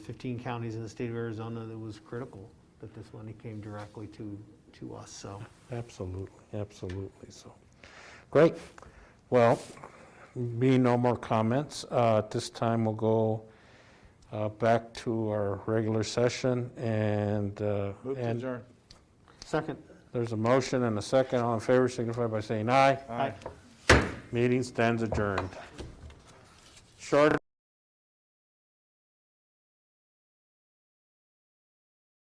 15 counties in the state of Arizona, that was critical that this money came directly to, to us, so. Absolutely, absolutely, so. Great. Well, being no more comments, uh, at this time we'll go uh, back to our regular session and, uh, Move to and adjourn. Second. there's a motion and a second. All in favor signify by saying aye. Aye. Meeting stands adjourned. Short